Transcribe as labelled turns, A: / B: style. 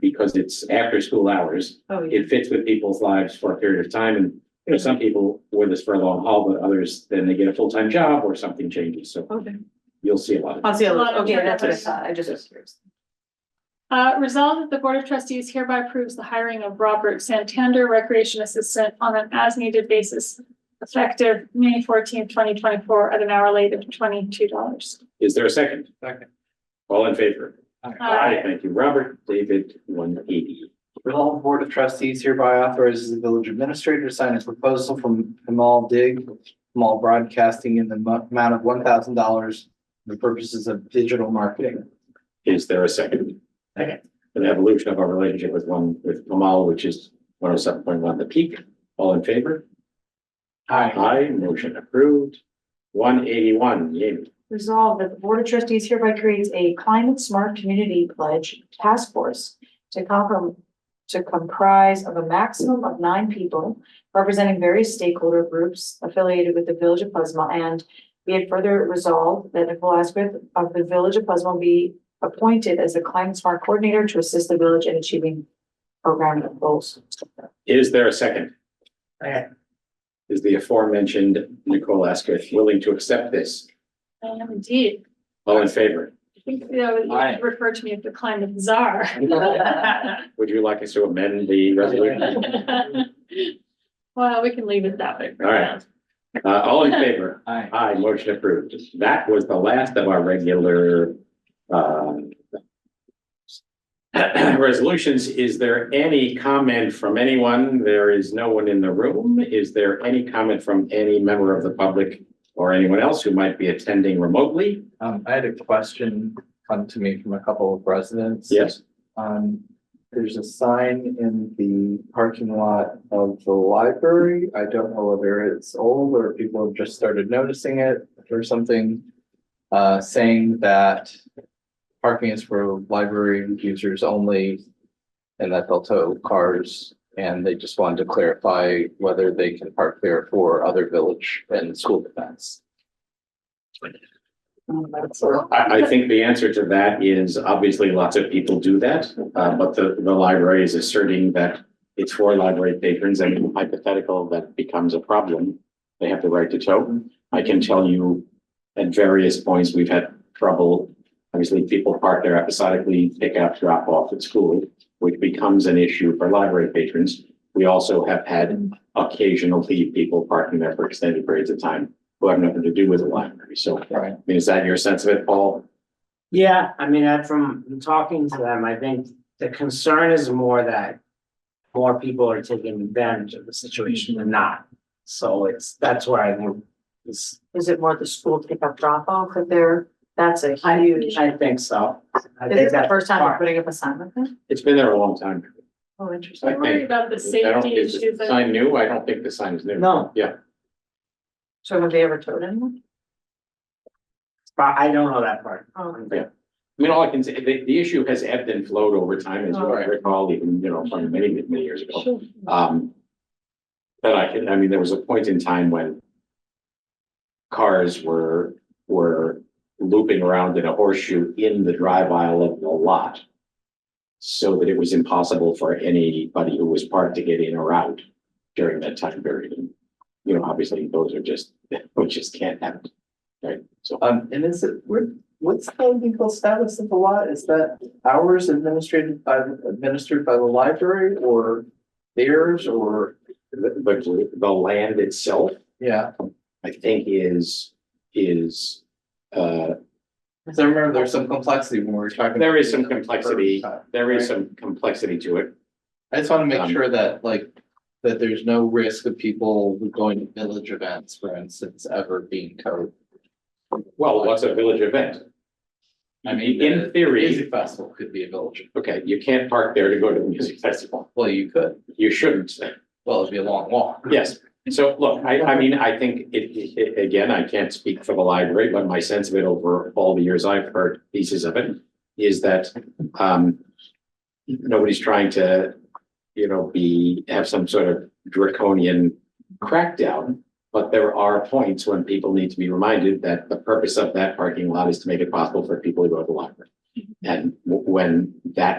A: because it's after school hours.
B: Oh, yeah.
A: It fits with people's lives for a period of time and there's some people wear this for a long haul, but others, then they get a full-time job or something changes. So
B: Okay.
A: you'll see a lot of.
B: I'll see, a lot. okay,
C: turnover.
B: that's what I thought, I just was curious.
C: Uh, resolved that the Board of Trustees hereby approves the hiring of Robert Santander Recreation Assistant on an as-needed basis effective May fourteenth, twenty twenty-four at an hourly rate of twenty-two dollars.
A: Is there a second?
D: Second.
A: All in favor?
C: Aye.
A: Thank you, Robert. David, one eighty.
D: Resolve the Board of Trustees hereby authorizes the village administrator to sign a proposal from Himal Dig, Himal Broadcasting in the mo- amount of one thousand dollars for the purposes of digital marketing.
A: Is there a second?
D: Second.
A: An evolution of our relationship with one, with Kamal, which is one oh seven point one, the peak. All in favor?
D: Aye.
A: Aye, motion approved. One eighty-one, Jamie.
B: Resolved that the Board of Trustees hereby creates a climate smart community pledge task force to comprom- to comprise of a maximum of nine people representing various stakeholder groups affiliated with the Village of Pleasantville and be it further resolved that Nicole Asquith of the Village of Pleasantville be appointed as the climate smart coordinator to assist the village in achieving program goals.
A: Is there a second?
D: Second.
A: Is the aforementioned Nicole Asquith willing to accept this?
C: I am indeed.
A: All in favor?
C: I think they always
D: Aye.
C: refer to me as the climate czar.
A: Would you like us to amend the resolution?
C: Well, we can leave it that way for
A: All
C: now.
A: right. Uh, all in favor?
D: Aye.
A: Aye, motion approved. That was the last of our regular, um, resolutions. Is there any comment from anyone? There is no one in the room. Is there any comment from any member of the public or anyone else who might be attending remotely?
D: Um, I had a question come to me from a couple of residents.
A: Yes,
D: Um, there's a sign in the parking lot of the library. I don't know whether it's old or if people have just started noticing it or something. Uh, saying that parking is for library users only. And that they'll tow cars and they just wanted to clarify whether they can park there for other village and school events.
A: I, I think the answer to that is obviously lots of people do that, uh, but the, the library is asserting that it's for library patrons and hypothetical that becomes a problem. They have the right to tow. I can tell you at various points, we've had trouble. Obviously, people park there episodically, pick up, drop off at school, which becomes an issue for library patrons. We also have had occasionally people parking there for extended periods of time who have nothing to do with the library. So
D: Right.
A: I mean, is that your sense of it, Paul?
E: Yeah, I mean, I'm from talking to them, I think the concern is more that more people are taking advantage of the situation than not. So it's, that's where I think this,
B: Is it more the school pickup drop off if they're, that's a
E: I,
B: huge.
E: I think so. I
B: This
E: think
B: is the
E: that's
B: first time we're
E: part.
B: putting up a sign like that?
A: It's been there a long time.
B: Oh, interesting.
C: Don't worry about the
A: I don't-
C: safety
A: is the
C: issues. uh, I-
A: Sign new? I don't think the sign is new.
E: No,
B: So have they ever towed anyone?
E: but I don't know that part.
B: Oh,
A: I mean, all I can say, the, the issue has ebbed and flowed over time, as you
D: Right.
A: recall, even, you know, from many, many years ago.
C: Sure.
A: Um, but I can, I mean, there was a point in time when cars were, were looping around in a horseshoe in the drive aisle of the lot so that it was impossible for anybody who was parked to get in or out during that time period. And, You know, obviously, those are just, we just can't happen, right? So
D: Um, and is it, where, what's the legal status of the lot? Is that ours administered by, administered by the library or theirs or,
A: the, the- the land itself,
D: yeah?
A: I think is, is, uh,
D: Cause I remember there's some complexity when we were talking.
A: There is some complexity.
D: I
A: there is some complexity to it.
D: just wanna
A: Um,
D: make sure that like, that there's no risk of people going to village events, for instance, ever being towed.
A: Well, what's a village event?
D: I
A: In
D: mean, the music
A: theory,
D: festival could be a village.
A: okay, you can't park there to go to the music festival.
D: Well, you could.
A: You shouldn't.
D: Well, it'd be a long walk.
A: Yes. So look, I, I mean, I think it, it- again, I can't speak for the library, but my sense of it over all the years I've heard pieces of it is that, um, nobody's trying to, you know, be, have some sort of draconian crackdown. But there are points when people need to be reminded that the purpose of that parking lot is to make it possible for people to go to the library. And w- when that